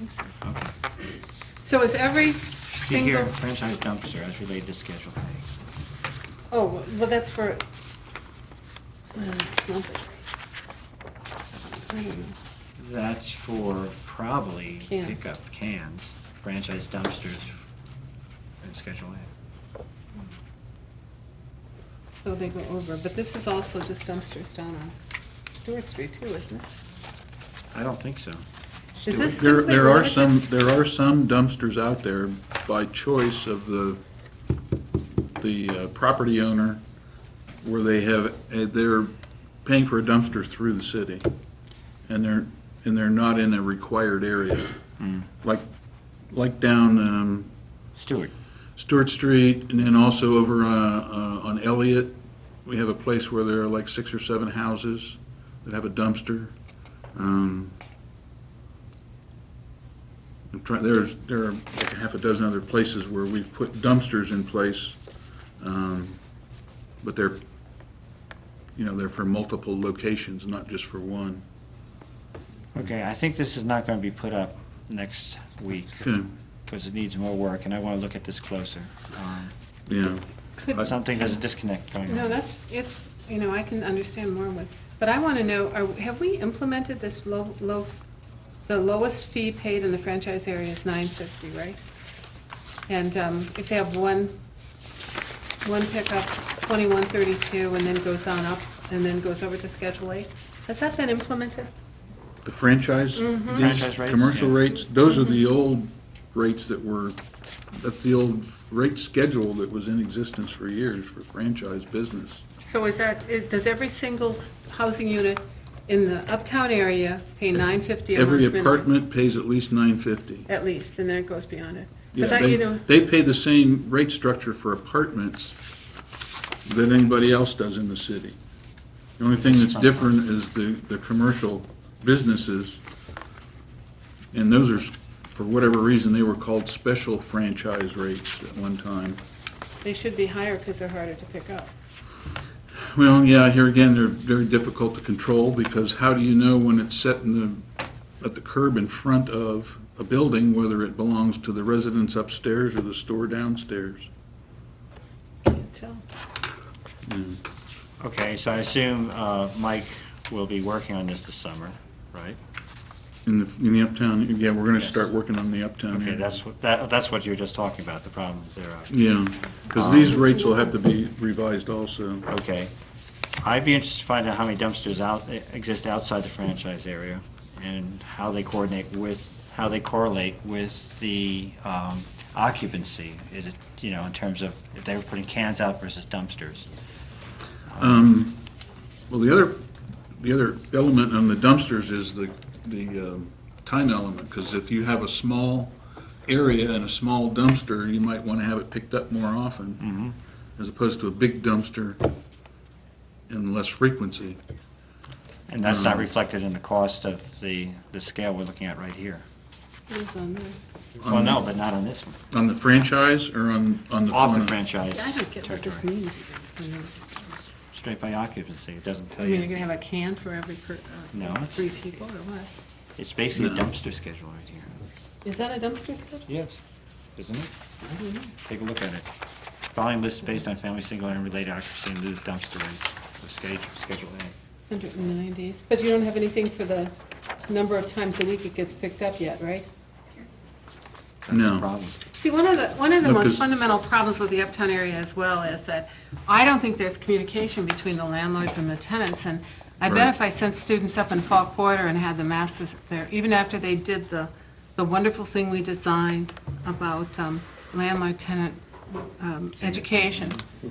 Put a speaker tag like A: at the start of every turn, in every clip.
A: Okay.
B: So is every
A: See here,
B: single,
A: franchise dumpster as related to Schedule A.
B: oh, well, that's for, uh, it's not the- I don't know.
A: That's for probably
B: Cans.
A: pickup cans, franchise dumpsters in Schedule A.
B: So they go over, but this is also just dumpsters down on Stewart Street too, isn't it?
A: I don't think so.
B: Is this
C: There,
B: simply
C: there are
B: limited?
C: some, there are some dumpsters out there by choice of the, the uh, property owner where they have, uh, they're paying for a dumpster through the city. And they're, and they're not in a required area. Like, like down, um,
A: Stewart,
C: Stewart Street, and then also over uh, uh, on Elliott, we have a place where there are like six or seven houses that have a dumpster. Um, I'm trying, there's, there are like a half a dozen other places where we've put dumpsters in place, um, but they're, you know, they're for multiple locations, not just for one.
A: okay, I think this is not gonna be put up next week,
C: Okay,
A: because it needs more work, and I wanna look at this closer. Um,
C: yeah. I-
A: Something, there's a disconnect going on.
B: No, that's, it's, you know, I can understand more with, but I want to know, are, have we implemented this low, low, the lowest fee paid in the franchise area is nine fifty, right? And, um, if they have one, one pickup, twenty-one thirty-two, and then goes on up, and then goes over to Schedule A, has that been implemented?
C: The franchise,
B: Mm-hmm.
A: Franchise
C: these
A: rates,
C: commercial
A: yeah.
C: rates, those are the old rates that were, that's the old rate schedule that was in existence for years for franchise business.
B: So is that, is, does every single housing unit in the uptown area pay nine fifty a month?
C: Every
B: minimum?
C: apartment pays at least nine fifty.
B: At least, and then it goes beyond it.
C: Yeah,
B: Because I,
C: they-
B: you know,
C: They pay the same rate structure for apartments that anybody else does in the city. The only thing that's different is the, the commercial businesses, and those are, s- for whatever reason, they were called special franchise rates at one time.
B: they should be higher because they're harder to pick up.
C: Well, yeah, here again, they're very difficult to control, because how do you know when it's set in the, at the curb in front of a building, whether it belongs to the residents upstairs or the store downstairs?
B: Can't tell.
A: Okay, so I assume uh, Mike will be working on this this summer, right?
C: In the, in the uptown, yeah, we're gonna
A: Yes.
C: start working on the uptown
A: Okay,
C: area.
A: that's, what that that's what you were just talking about, the problem thereof.
C: Yeah, because these
A: Um,
C: rates will have to be revised also.
A: Okay. I'd be interested to find out how many dumpsters out, exist outside the franchise area and how they coordinate with, how they correlate with the um, occupancy. Is it, you know, in terms of if they were putting cans out versus dumpsters?
C: Well, the other, the other element on the dumpsters is the, the um, time element, because if you have a small area and a small dumpster, you might want to have it picked up more often, as opposed to a big dumpster and less frequency.
A: And that's not reflected in the cost of the, the scale we're looking at right here.
B: It is on there.
A: Well, no, but not on this one.
C: On the franchise or on, on the?
A: Off the
C: on
A: franchise
B: I don't get what this
A: territory.
B: means. even.
A: Straight by occupancy, it doesn't
B: I
A: tell
B: mean, you're
A: you.
B: gonna have a can for every per,
A: No,
B: uh,
A: it's-
B: three people or what?
A: It's basically a
C: No.
A: dumpster schedule right here.
B: Is that a dumpster schedule?
A: Yes. Isn't it? Take a look at it. Volume list based on family, single, and related occupancy and the dumpster rates of schedule, schedule A.
B: Hundred and nineties, but you don't have anything for the number of times a week it gets picked up yet, right?
A: That's the
C: No.
A: problem.
B: See, one of the, one of the
C: No,
B: most
C: 'cause-
B: fundamental problems with the uptown area as well is that I don't think there's communication between the landlords and the tenants, and I bet
C: Right.
B: if I sent students up in fall quarter and had the masses there, even after they did the, the wonderful thing we designed about um, landlord-tenant um, education,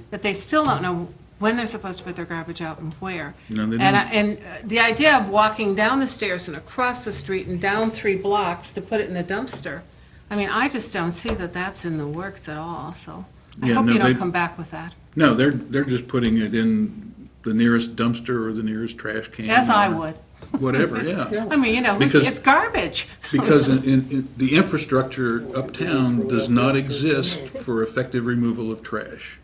B: that they still don't know when they're supposed to put their garbage out and where.
C: No, they
B: And
C: don't.
B: I- and uh, the idea of walking down the stairs and across the street and down three blocks to put it in the dumpster, I mean, I just don't see that that's in the works at all, so I
C: Yeah,
B: hope
C: no,
B: you don't
C: they-
B: come back with that,
C: No, they're, they're just putting it in the nearest dumpster or the nearest trash can.
B: as I
C: or
B: would.
C: Whatever, yeah.
B: I mean, you know, it's
C: Because-
B: it's garbage.
C: Because in, in, in- the infrastructure uptown does not exist for effective removal of trash.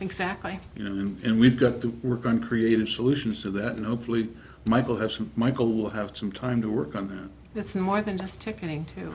B: Exactly.
C: You know, and, and we've got to work on creative solutions to that, and hopefully Michael has some, Michael will have some time to work on that.
B: It's more than just ticketing, too.